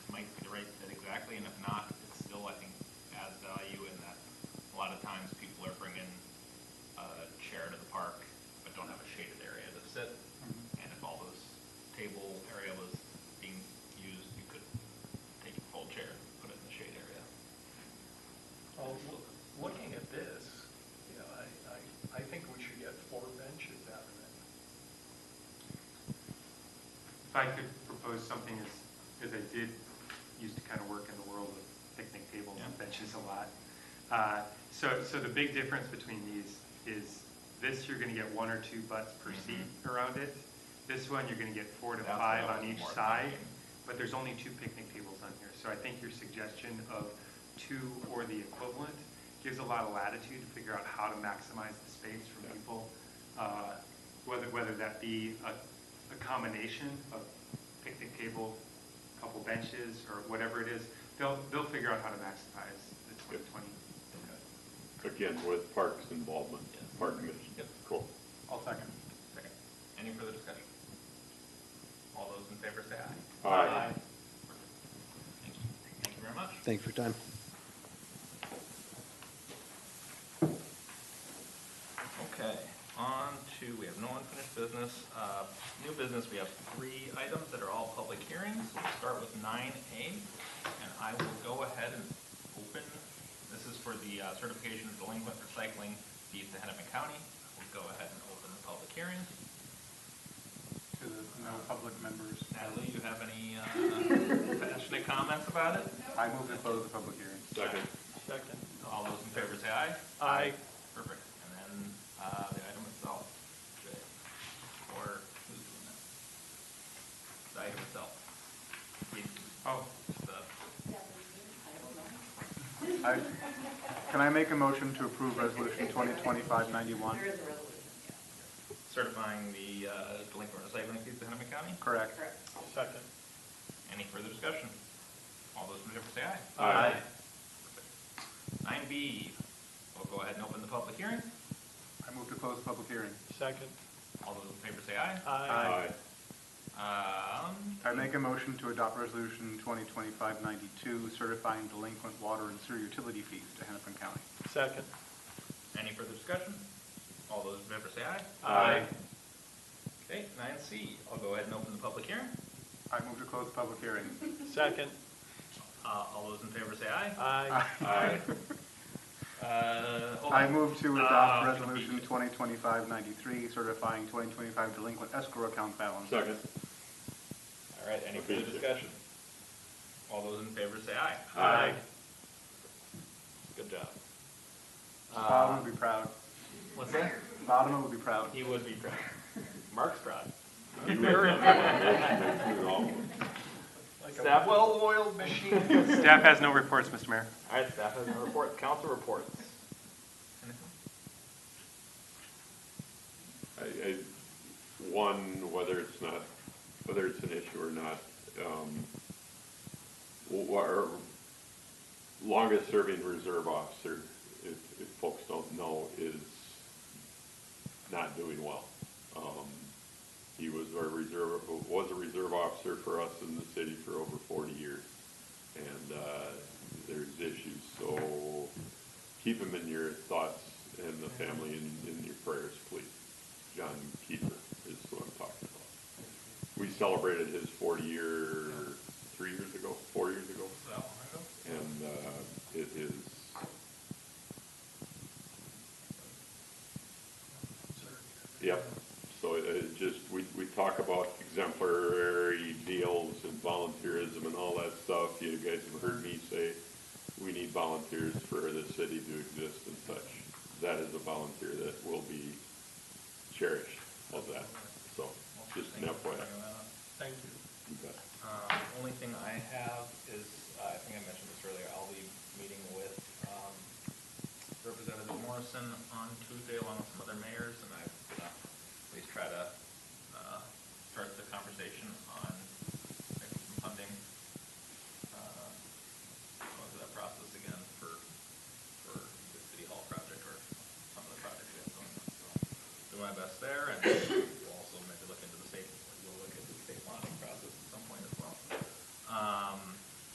if I could propose something as, as I did used to kind of work in the world of picnic tables and benches a lot. Uh, So, so the big difference between these is this, you're gonna get one or two butts per seat around it. This one, you're gonna get four to Mm-hmm. That's what five I on was each more side, thinking. but there's only two picnic tables on here. So I think your suggestion of two or the equivalent gives a lot of latitude to figure out how to maximize the space for Yeah. people. uh, Whether, whether that be a, a combination of picnic table, couple benches, or whatever it is, they'll, they'll figure out how to maximize the 2020. Again, with Parks involvement, Yes. Park Commission. Yep. Cool. I'll second. Second. Any further discussion? All those in favor say aye. Aye. Aye. Thank you. Thank you very much. Thank you for your time. Okay, on to, we have no unfinished business. Uh, New business, we have three items that are all public hearings. We'll start with nine A, and I will go ahead and open, this is for the uh, certification of delinquent recycling fees to Hennepin County. We'll go ahead and open the public hearing. to the no public members. Natalie, you have any uh, passionate comments about it? I move to close the public hearing. Second. Second. All those in favor say aye. Aye. Perfect. And then uh, the item itself. Okay. Or who's doing that? The item itself. The- Oh, the- I, can I make a motion to approve resolution 2025-91? There is a resolution, yeah, Certifying the uh, delinquent recycling fees to Hennepin County. Correct. correct. Second. Any further discussion? All those in favor say aye. Aye. Perfect. Nine B, we'll go ahead and open the public hearing. I move to close the public hearing. Second. All those in favor say aye. Aye. Um, I make a motion to adopt resolution 2025-92 certifying delinquent water and sewer utility fees to Hennepin County. Second. Any further discussion? All those in favor say aye. Aye. Okay, nine C, I'll go ahead and open the public hearing. I move to close the public hearing. Second. Uh, all those in favor say aye. Aye. Aye. Uh, hold I on. move to Uh, adopt resolution 2025-93 certifying 2025 delinquent escrow account balance. Uh, Second. All right, any further discussion? All those in favor say aye. Aye. Good job. Bob would be proud. What's that? Bob would be proud. He would be proud. Mark's proud. Staff, well-oiled machine. staff has no reports, Mr. Mayor. All right, staff has no report, council reports. I, I, one, whether it's not, whether it's an issue or not, um, wh- our longest-serving reserve officer, if, if folks don't know, is not doing well. Um, he was our reserve, was a reserve officer for us in the city for over forty years, and, uh, there's issues, so keep him in your thoughts and the family in, in your prayers, please. John Keeper is who I'm talking about. We celebrated his 40 year, three years ago, four years ago, So, and uh, it is Yep, so it- it just, we, we talk about exemplary deals and volunteerism and all that stuff. You guys have heard me say, we need volunteers for the city to exist and such. That is a volunteer that will be cherished of that, so, just an FYI. Thank you. You bet. Um, only thing I have is, uh, I think I mentioned this earlier, I'll be meeting with, um, Representative Morrison on Tuesday along with some other mayors, and I'm gonna at least try to, uh, start the conversation on maybe some funding. Uh, Go through that process again for, for the city hall project or some of the projects we have going on, so. Do my best there, Um,